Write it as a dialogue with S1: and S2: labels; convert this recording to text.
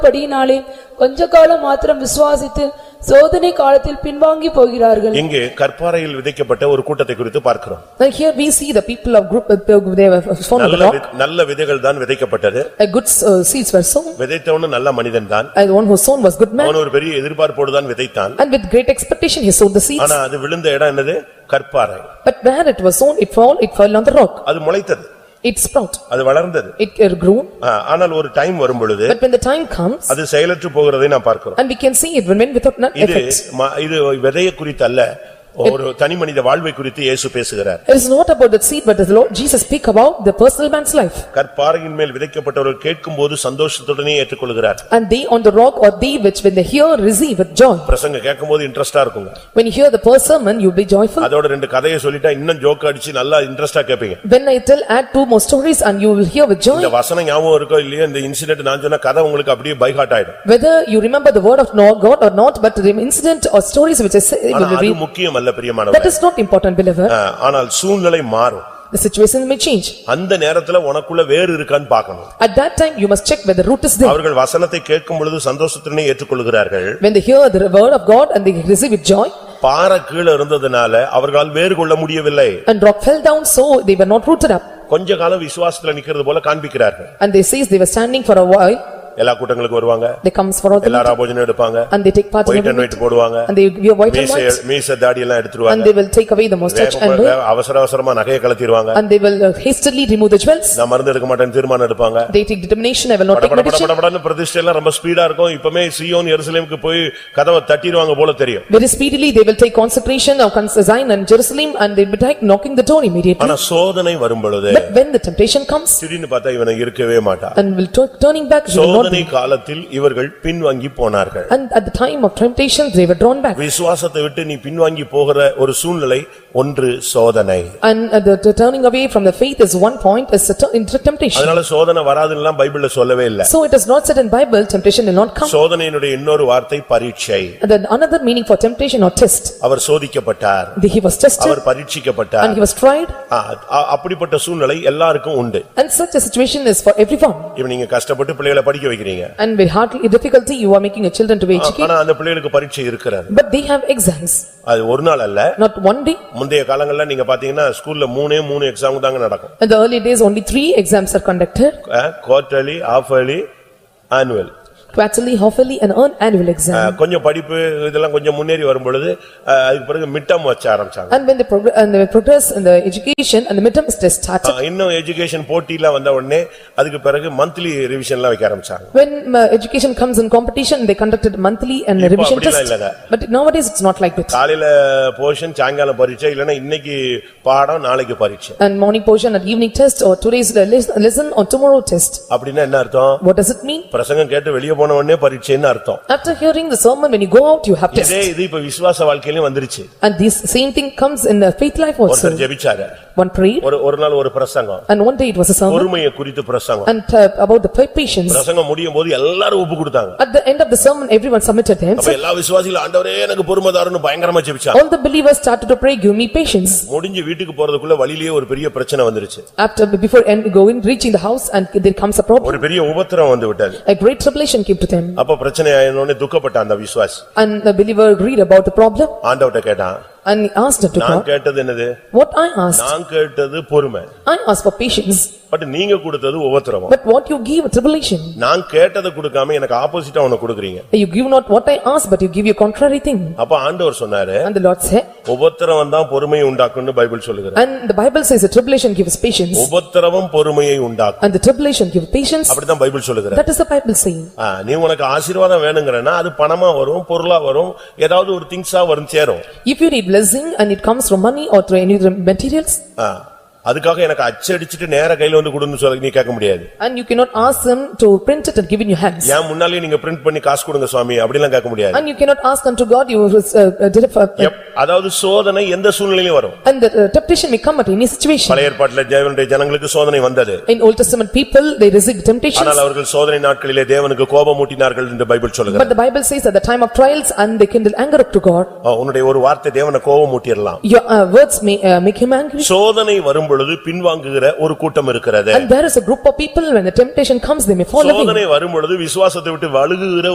S1: படியினாலே கொஞ்ச காலம் மாத்திரம் விசுவாசித்து சோதனை காலத்தில் பின்வாங்கி போகிறார்கள்
S2: இங்கே கற்பாறையில் விதைக்கப்பட்ட ஒரு கூட்டத்தை குறித்து பார்க்கிறோம்
S3: Now here we see the people of group, uh, they were sown on the
S2: நல்ல
S3: rock,
S2: வி- நல்ல விதைகள் தான் விதைக்கப்பட்டது
S3: Uh, good uh, seeds were sown,
S2: விதைத்தவனும் நல்ல மனிதன் தான்
S3: and the one who sown was good man,
S2: அவன் ஒரு பெரிய எதிர்பார்ப்போடு தான் விதைத்தான்
S3: and with great expectation he sowed the seeds,
S2: ஆனா அது விழுந்த இடம் என்னது கற்பாறை
S3: but where it was sown, it fell, it fell on the rock,
S2: அது முளைத்தது
S3: it sprout,
S2: அது வளர்ந்தது
S3: it uh, grew,
S2: ஆ, ஆனால் ஒரு டைம் வரும் பொழுது
S3: but when the time comes,
S2: அது செயலற்று போகிறதை நாம் பார்க்கிறோம்
S3: and we can see it remained without none
S2: இது
S3: effect.
S2: ம- இது விதையை குறித்து அல்ல ஒரு தனி மனித வாழ்வை குறித்து இயேசு பேசுகிறார்
S3: It is not about that seed, but the Lord Jesus speak about the personal man's life,
S2: கற்பாறையின் மேல் விதைக்கப்பட்டவர்கள் கேட்கும்போது சந்தோஷத்துடனே ஏற்றுக்கொள்கிறார்
S3: and they on the rock or they which when they hear receive with joy.
S2: பிரசங்க கேட்கும்போது இன்ட்ரெஸ்டா இருக்குங்க
S3: When you hear the first sermon, you be joyful,
S2: அதோட ரெண்டு கதையை சொல்லிட்டா இன்னும் ஜோக் அடிச்சு நல்லா இன்ட்ரெஸ்டா கேட்பீங்க
S3: when I tell add two more stories and you will hear with joy.
S2: இந்த வசனம் ஞாபகம் இருக்கோ இல்லையோ இந்த இன்சிடென்ட் நான் சொன்ன கதை உங்களுக்கு அப்படியே பைகாட் ஆயிடும்
S3: Whether you remember the word of no- God or not, but the incident or stories which I say,
S2: ஆனா
S3: will
S2: அது
S3: read,
S2: முக்கியம் அல்ல
S3: that Uh,
S2: பிரியமானவர்
S3: is not important believer,
S2: ஆனால் சூழ்நிலை மாறும்
S3: the situation may change.
S2: அந்த நேரத்துல உனக்குள்ள வேறு இருக்கான்னு பார்க்கணும்
S3: At that time, you must check whether root is there.
S2: அவர்கள் வசனத்தை கேட்கும் பொழுது சந்தோஷத்துடனே ஏற்றுக்கொள்கிறார்கள்
S3: When they hear the word of God and they receive it joy,
S2: பாறை கீழே இருந்ததுனால அவர்களால் வேறு கொள்ள முடியவில்லை
S3: and rock fell down, so they were not rooted up.
S2: கொஞ்ச காலம் விசுவாசத்துல நிக்கிறது போல காண்பிக்கிறார்கள்
S3: And they says they were standing for a while,
S2: எல்லா கூட்டங்களுக்கு வருவாங்க
S3: they comes for all the
S2: எல்லா
S3: meeting,
S2: ராபோஜனும் எடுப்பாங்க
S3: and they take part in
S2: white
S3: every
S2: and
S3: meeting,
S2: white போடுவாங்க
S3: and they wear white and
S2: மீச
S3: white,
S2: மீச தாடி எல்லாம்
S3: and
S2: எடுத்துருவாங்க
S3: they will take away the mustache and
S2: வேகமா-
S3: beard,
S2: வே- அவசர அவசரமா நகையை கலத்திடுவாங்க
S3: and they will uh, hastily remove the jewels,
S2: நான் மருந்து எடுக்க மாட்டேன்னு தீர்மானம் எடுப்பாங்க
S3: they take determination, I will not
S2: பட
S3: take
S2: பட பட
S3: medicine.
S2: பட படன்னு பிரதிஷ்டை எல்லாம் ரொம்ப ஸ்பீடா இருக்கும் இப்பமே சியோன் எருசலேமுக்கு போய் கதவை தட்டிடுவாங்க போல தெரியும்
S3: Very speedily, they will take consecration of Zion and Jerusalem and they will take knocking the door immediately.
S2: ஆனா சோதனை வரும் பொழுது
S3: But when the temptation comes
S2: திடீர்னு பார்த்தா இவனை இருக்கவே மாட்டான்
S3: and will tu- turning back, he will not
S2: சோதனை
S3: be.
S2: காலத்தில் இவர்கள் பின்வாங்கி போனார்கள்
S3: And at the time of temptation, they were drawn back.
S2: விசுவாசத்தை விட்டு நீ பின்வாங்கி போகிற ஒரு சூழ்நிலை ஒன்று சோதனை
S3: And uh, the the turning away from the faith is one point, is a tu- into temptation.
S2: அதனால சோதனை வராதுன்னுலாம் பைபிள்ல சொல்லவே இல்ல
S3: So it is not said in Bible, temptation will not come.
S2: சோதனையினுடைய இன்னொரு வார்த்தை பரீட்சை
S3: And then another meaning for temptation or test,
S2: our சோதிக்கப்பட்டார்
S3: The- he was tested
S2: our பரீட்சிக்கப்பட்டார்
S3: and he was tried
S2: ஆ, அ- அப்படிப்பட்ட சூழ்நிலை எல்லாருக்கும் உண்டு
S3: and such a situation is for everyone.
S2: இப்ப நீங்க கஷ்டப்பட்டு பிள்ளைகளை படிக்க வைக்கிறீங்க
S3: And with hardly difficulty, you are making your children to be educated,
S2: ஆனா அந்த பிள்ளைகளுக்கு பரீட்சை இருக்கிறது
S3: but they have exams,
S2: அது ஒரு நாள் அல்ல
S3: not one day,
S2: முந்தைய காலங்கள்ல நீங்க பாத்தீங்கன்னா ஸ்கூல்ல மூணே மூணு எக்ஸாம் தாங்க நடக்கும்
S3: In the early days, only three exams are conducted,
S2: quarterly half yearly annual
S3: quarterly, halfly and an annual exam.
S2: கொஞ்சம் படிப்பு இதெல்லாம் கொஞ்சம் முன்னேறி வரும் பொழுது ஆ, அதுக்கு பிறகு மிட்டம் வச்ச ஆரம்பிச்சாங்க
S3: And when they progress, and they progress in the education and the midterm test
S2: ஆ,
S3: started,
S2: இன்னும் எஜுகேஷன் போட்டிலாம் வந்த உடனே அதுக்கு பிறகு மந்த்லி ரிவிஷன்லாம் வைக்க ஆரம்பிச்சாங்க
S3: when uh, education comes in competition, they conducted monthly and
S2: இப்ப
S3: revision
S2: அப்படிலாம்
S3: test.
S2: இல்லங்க.
S3: But nowadays, it's not like that.
S2: காலையில போர்ஷன் சாயங்காலம் பரீட்சை இல்லைன்னா இன்னைக்கு பாடம் நாளைக்கு பரீட்சை
S3: And morning portion and evening test or today's le- les- lesson or tomorrow test.
S2: அப்படின்னா என்ன அர்த்தம்
S3: What does it mean?
S2: பிரசங்கம் கேட்டு வெளியே போன உடனே பரீட்சைன்னு அர்த்தம்
S3: After hearing the sermon, when you go out, you have
S2: இதே
S3: test.
S2: இது இப்ப விசுவாச வாழ்க்கையிலும் வந்துருச்சு
S3: And this same thing comes in the faith life also.
S2: ஒருத்தர் ஜெபிச்சாரு
S3: One prayed
S2: ஒரு ஒரு நாள் ஒரு பிரசங்கம்
S3: and one day it was a sermon
S2: பொறுமையை குறித்து பிரசங்கம்
S3: and uh, about the pa- patience.
S2: பிரசங்கம் முடியும் போது எல்லாரும் ஒப்பு கொடுத்தாங்க
S3: At the end of the sermon, everyone submitted
S2: அப்ப
S3: themselves.
S2: எல்லா விசுவாசிகளும் ஆண்டவரே எனக்கு பொறுமைதாரன்னு பயங்கரமா ஜெபிச்சாங்க
S3: All the believers started to pray, "Give me patience."
S2: முடிஞ்சு வீட்டுக்கு போறதுக்குள்ள வழியிலேயே ஒரு பெரிய பிரச்சனை வந்துருச்சு
S3: After, before and going, reaching the house and there comes a problem.
S2: ஒரு பெரிய உபத்திரம் வந்து விட்டது
S3: A great tribulation came to them
S2: அப்ப பிரச்சனை ஆயினோடனே துக்கப்பட்ட அந்த விசுவாசி
S3: and the believer read about the problem
S2: ஆண்டவர்ட்ட கேட்டான்
S3: and he asked to
S2: நான்
S3: God,
S2: கேட்டது என்னது
S3: "What I asked?
S2: நான் கேட்டது பொறுமை
S3: I asked for patience,
S2: but நீங்க கொடுத்தது உபத்திரவம்
S3: but what you give a tribulation?
S2: நான் கேட்டதை கொடுக்காம எனக்கு ஆப்போசிட்டா ஒண்ணு கொடுக்குறீங்க
S3: You give not what I asked, but you give your contrary thing."
S2: அப்ப ஆண்டவர் சொன்னாரு
S3: And the Lord said,
S2: உபத்திரவம் தான் பொறுமையை உண்டாக்கும்னு பைபிள் சொல்லுகிறது
S3: and the Bible says the tribulation gives patience
S2: உபத்திரவம் பொறுமையை உண்டாக்கும்
S3: and the tribulation gives patience.
S2: அப்படிதான் பைபிள் சொல்லுகிறது
S3: That is the Bible saying.
S2: ஆ, நீ உனக்கு ஆசீர்வாதம் வேணுங்கிறனா அது பணமா வரும் பொருளா வரும் ஏதாவது ஒரு திங்ஸா வரும் சேரும்
S3: If you need blessing and it comes from money or through any other materials,
S2: ஆ, அதுக்காக எனக்கு அச்சடிச்சிட்டு நேர கையில வந்து கொடுன்னு சொல்ல நீ கேட்க முடியாது
S3: And you cannot ask them to print it and give in your hands.
S2: ஏன் முன்னாலே நீங்க பிரிண்ட் பண்ணி காசு கொடுங்க சுவாமி அப்படிலாம் கேட்க முடியாது
S3: And you cannot ask unto God, you will, uh, uh, deliver.
S2: எப்- அதாவது சோதனை எந்த சூழ்நிலையிலும் வரும்
S3: And the uh, temptation may come at any situation.
S2: பழைய ஏற்பாட்டில் தேவனுடைய ஜனங்களுக்கு சோதனை வந்தது
S3: In Old Testament people, they resist temptations.
S2: ஆனால் அவர்கள் சோதனை நாட்களிலே தேவனுக்கு கோபமூட்டினார்கள் என்று பைபிள் சொல்லுகிறது
S3: But the Bible says at the time of trials and they kindle anger up to God.
S2: ஆ, உன்னுடைய ஒரு வார்த்தை தேவனை கோபமூட்டிரலாம்
S3: Your uh, words may uh, make him angry.
S2: சோதனை வரும் பொழுது பின்வாங்குகிற ஒரு கூட்டம் இருக்கிறது
S3: And there is a group of people, when the temptation comes, they may fall away.
S2: சோதனை வரும் பொழுது விசுவாசத்தை விட்டு வழுகுகிற